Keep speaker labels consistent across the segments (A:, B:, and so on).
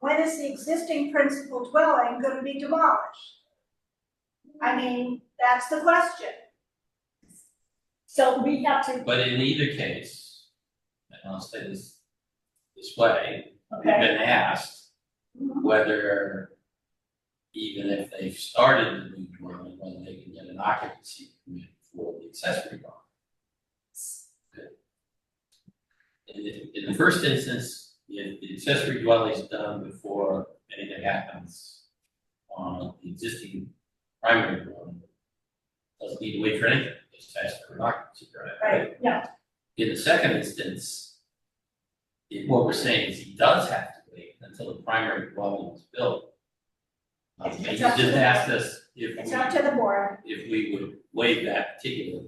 A: why is the existing principal dwelling gonna be demolished? I mean, that's the question.
B: So we have to,
C: But in either case, and I'll say this this way, we've
B: okay, Mm-hmm.
C: been asked whether even if they've started the new dwelling, whether they can get an occupancy permit for the accessory dwelling. In the, in the first instance, if the accessory dwelling is done before anything happens on the existing primary dwelling, doesn't need to wait for anything, just ask for an occupancy permit.
B: right, yeah,
C: In the second instance, it- what we're saying is he does have to wait until the primary dwelling is built. Um, and he
A: It's up
C: just
A: to the-
C: asked us if
A: It's up to the board.
C: we, if we would waive that particular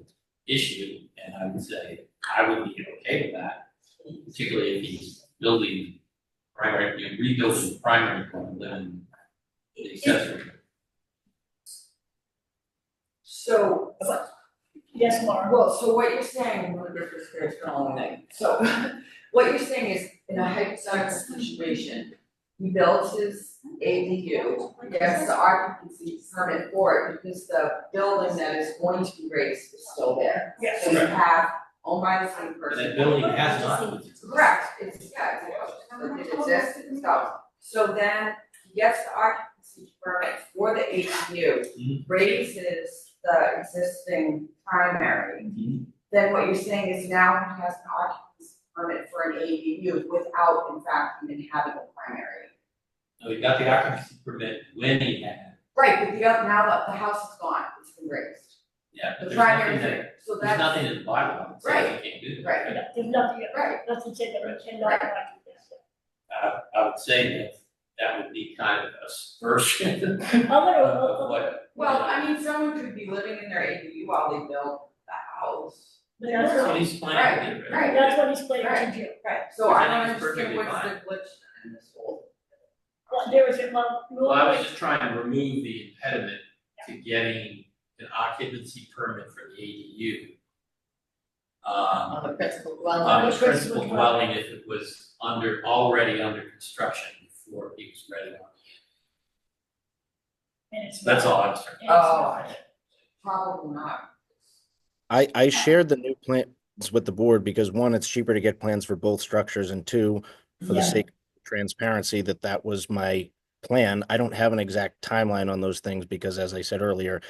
C: issue, and I would say, I would be okay with that. Particularly if he's building primary, you know, rebuilding the primary dwelling, then the accessory.
D: So,
B: yes, Laura.
D: well, so what you're saying, one of the first grades for all thing, so what you're saying is, in a hypothetical situation, he builds his ADU, he gets the occupancy permit for it, because the building that is going to be raised is still there.
B: Yes.
D: So you have owned by the same
C: But
D: person.
C: that building has not.
D: Correct, it's, yeah, it's, a house, it exists, it's not. So then, he gets the occupancy permit for the ADU,
C: Mhm.
D: raises the existing primary.
C: Mhm.
D: Then what you're saying is now he has an occupancy permit for an ADU without in fact even having a primary.
C: No, he got the occupancy permit when he had,
D: Right, but the, oth- now that the house is gone, it's been raised,
C: yeah, but
D: the
C: there's
D: primary,
C: nothing
D: is
C: that
D: there. so
C: There's
D: that's,
C: nothing in the bylaw that says you can't do that.
D: right,
B: Yeah, there's nothing,
D: right,
B: nothing said that we cannot
D: Right.
B: do this.
C: I, I would say that that would be kind of a subversion
B: I'm gonna,
C: of-
B: uh,
C: of
B: uh,
C: what.
D: Well, I mean, someone could be living in their ADU while they build the house.
B: but that's
C: That's
B: what,
C: what he's planning to do,
D: Right,
B: that's what he's planning to do.
D: Right. So
C: Which I
D: I don't
C: think is perfectly
D: understand what's the
C: fine.
D: glitch in this whole.
B: Well, There is a, well,
C: Well, I was just trying to remove the impediment to getting an occupancy permit for the ADU. Um,
E: on the principal
C: on
E: dwelling,
C: the
B: which was-
C: principal dwelling if it was under, already under construction before he was ready on it.
B: and it's.
C: That's all I was trying.
B: And it's not.
D: Oh. Probably not.
F: I, I shared the new plans with the board because one, it's cheaper to get plans for both structures and two, for the
B: Yeah.
F: sake of transparency, that that was my plan. I don't have an exact timeline on those things because as I said earlier,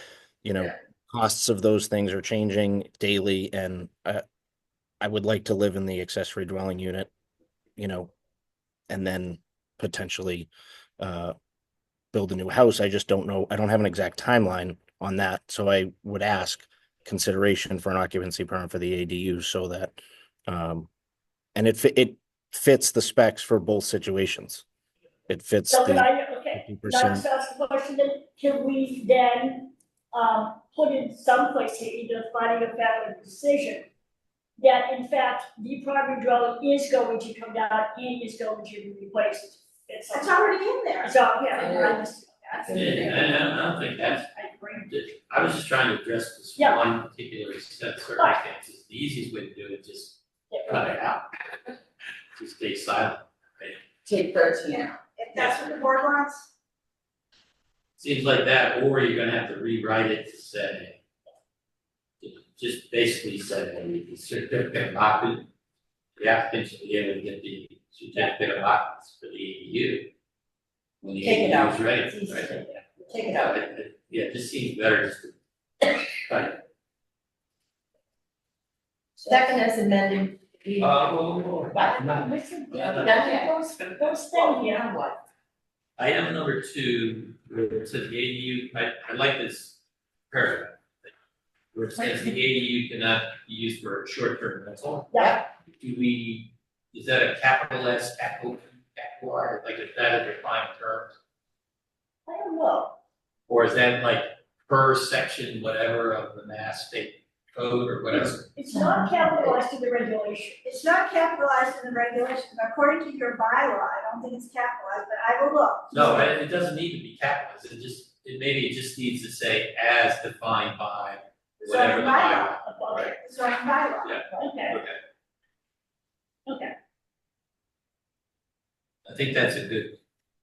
F: you know,
D: Yeah.
F: costs of those things are changing daily and I, I would like to live in the accessory dwelling unit, you know, and then potentially, uh, build a new house. I just don't know. I don't have an exact timeline on that. So I would ask consideration for an occupancy permit for the ADU so that, um, and it, fi- it fits the specs for both situations. It fits
B: So can
F: the
B: I, okay,
F: fifty
B: now
F: percent.
B: just ask the question, then, can we then, um, put in some place here, either finding a fact or decision? That in fact, the primary dwelling is going to come down and is going to be replaced. It's,
A: It's already in there.
B: so, yeah, I just,
D: That's
C: Yeah,
D: interesting.
C: and I don't think that's
B: I agree.
C: I was just trying to address this
B: Yeah.
C: one particular set of circumstances, the easiest way to do it, just cut it out. Just stay silent, right?
D: Take thirteen out.
A: If that's what the board wants,
C: Seems like that, or you're gonna have to rewrite it to say. Just basically say, well, the certificate of occupancy, the applicant should be able to get the certificate of occupancy for the ADU. When the
E: Take it
C: ADU
E: out.
C: is ready, right?
E: It's easy to take take it out.
C: Yeah, it- it- Yeah, it just seems better just to. Right,
E: Second as amended, we,
C: uh, well, well,
E: But-
C: not-
B: Listen,
C: Yeah,
E: that,
C: but-
E: goes,
B: Those things, yeah.
E: what?
C: Item number two, where it says the ADU, I, I like this paragraph. Where it says the ADU cannot be used for short-term rental.
B: Yeah.
C: Do we, is that a capital S, capital, capital R, like is that a defined term?
B: I don't know,
C: Or is that like per section, whatever of the mass state code or whatever?
B: it's not capitalized in the regulation.
A: it's not capitalized in the regulation, according to your bylaw, I don't think it's capitalized, but I will look.
C: No, it, it doesn't need to be capitalized, it just, it maybe it just needs to say as defined by
A: It's on
C: whatever
A: the
C: the
A: bylaw,
C: bylaw.
B: Okay,
A: it's on the bylaw.
B: okay,
C: Okay,
B: okay.
C: I think that's a good